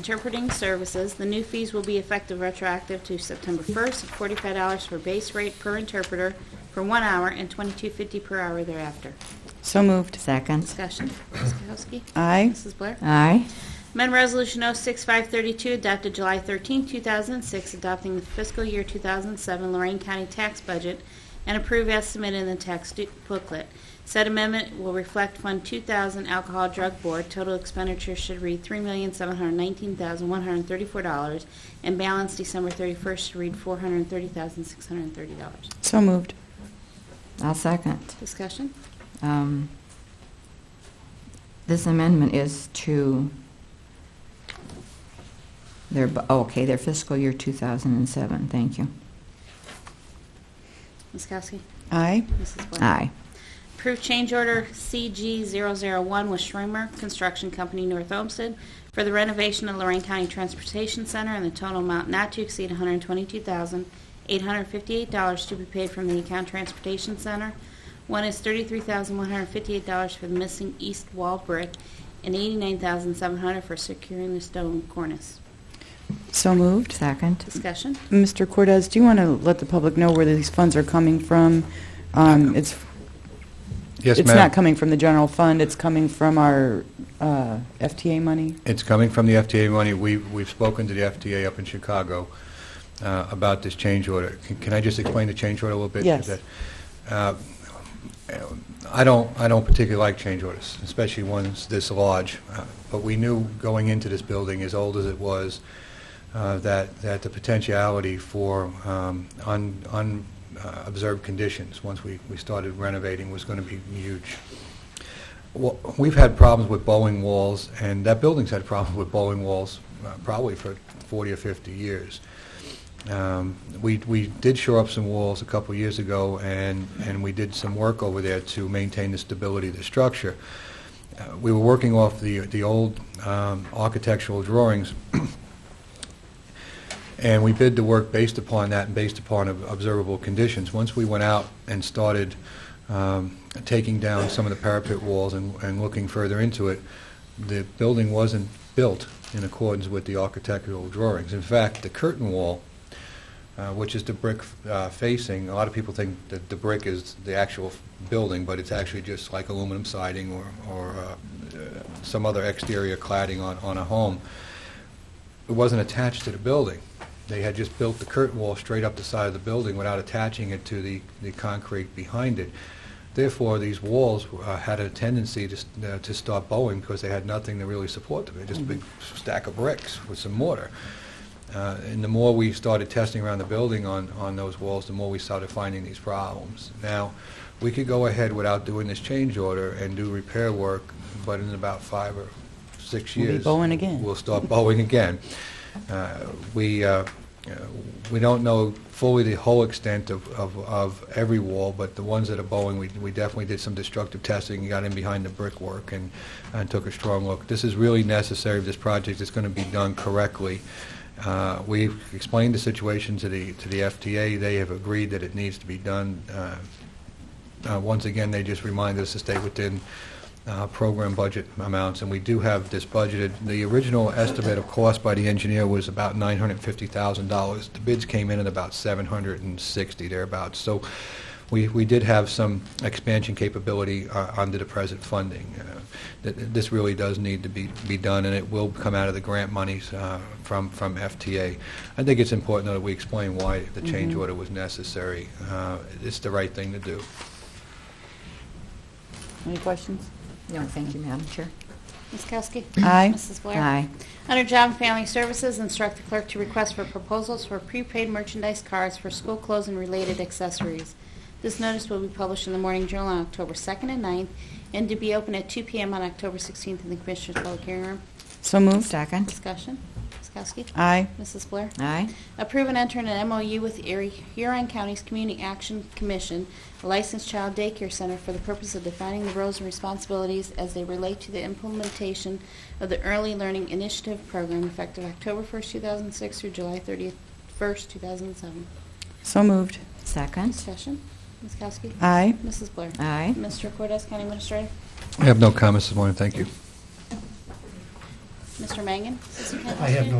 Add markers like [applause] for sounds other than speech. interpreting services, the new fees will be effective retroactive to September 1st at $45 for base rate per interpreter for one hour and $22.50 per hour thereafter. So moved. Second. Discussion. Ms. Kowski? Aye. Mrs. Blair? Aye. Amendment Resolution 06532, adopted July 13, 2006, adopting the fiscal year 2007 Lorraine County tax budget and approve estimate in the tax du- booklet. Said amendment will reflect Fund 2000 Alcohol Drug Board. Total expenditure should read $3,719,134, and balance December 31st should read $430,630. So moved. I'll second. Discussion? Um, This amendment is to their, bu- oh, okay, their fiscal year 2007. Thank you. Ms. Kowski? Aye. Mrs. Blair? Aye. Approve change order CG001 with Schremer Construction Company, North Olmsted, for the renovation of Lorraine County Transportation Center in the total amount not to exceed $122,858 to be paid from the account Transportation Center. One is $33,158 for the missing east wall brick and $89,700 for securing the stone cornice. So moved. Second. Discussion? Mr. Cortez, do you want to let the public know where these funds are coming from? Um, It's, Yes, it's not ma'am. coming from the general fund, it's coming from our uh, FTA money? It's coming from the FTA money. We- We've spoken to the FTA up in Chicago uh, about this change order. Can- Can I just explain the change order a little bit? Yes. Is that, uh, I don't, I don't particularly like change orders, especially ones this large, Uh, but we knew going into this building, as old as it was, uh, that, that the potentiality for um, un- un- uh, observed conditions, once we we started renovating, was going to be huge. Well, We've had problems with bowling walls, and that building's had problems with bowling walls uh, probably for 40 or 50 years. Um, We we did shore up some walls a couple of years ago, and and we did some work over there to maintain the stability of the structure. Uh, We were working off the the old um, architectural drawings, [clears throat] and we bid the work based upon that and based upon ob- observable conditions. Once we went out and started um, taking down some of the parapet walls and and looking further into it, the building wasn't built in accordance with the architectural drawings. In fact, the curtain wall, uh, which is the brick uh, facing, a lot of people think that the brick is the actual building, but it's actually just like aluminum siding or- or uh, uh, some other exterior cladding on on a home. It wasn't attached to the building. They had just built the curtain wall straight up the side of the building without attaching it to the the concrete behind it. Therefore, these walls uh, had a tendency to s- uh, to start bowing because they had nothing to really support them. They're just a Mm-hmm. big stack of bricks with some mortar. Uh, And the more we started testing around the building on, on those walls, the more we started finding these problems. Now, we could go ahead without doing this change order and do repair work, but in about five or six We'll be years... bowing again. We'll start bowing [laughs] again. Uh, We, uh, uh, we don't know fully the whole extent of, of, of every wall, but the ones that are bowing, we, we definitely did some destructive testing, and got in behind the brickwork and, and took a strong look. This is really necessary, if this project is going to be done correctly. Uh, We've explained the situation to the, to the FTA. They have agreed that it needs to be done. Uh, uh, Once again, they just remind us to stay within uh, program budget amounts, and we do have this budgeted. The original estimate of cost by the engineer was about $950,000. The bids came in at about 760 thereabouts. So we we did have some expansion capability uh, under the present funding. Uh, th- th- This really does need to be be done, and it will come out of the grant monies uh, from from FTA. I think it's important, though, that we explain why the change order was necessary. Uh, It's the right thing to do. Any questions? No, thank you, Madam Chair. Ms. Kowski? Aye. Mrs. Blair? Aye. Under Job and Family Services, instruct the clerk to request for proposals for prepaid merchandise cards for school clothes and related accessories. This notice will be published in the Morning Journal on October 2nd and 9th, and to be open at 2 p.m. on October 16th in the Commissioners' Public Hearing Room. So moved. Second. Discussion. Ms. Kowski? Aye. Mrs. Blair? Aye. Approve and enter an MOU with Erie- Huron County's Community Action Commission, a licensed child daycare center for the purpose of defining the roles and responsibilities as they relate to the implementation of the Early Learning Initiative Program effective October 1st, 2006 through July 31st, 2007. So moved. Second. Discussion. Ms. Kowski? Aye. Mrs. Blair? Aye. Mr. Cortez, County Administrator? I have no comments this morning, thank you. Mr. Mr. Mangan? Assistant County I have no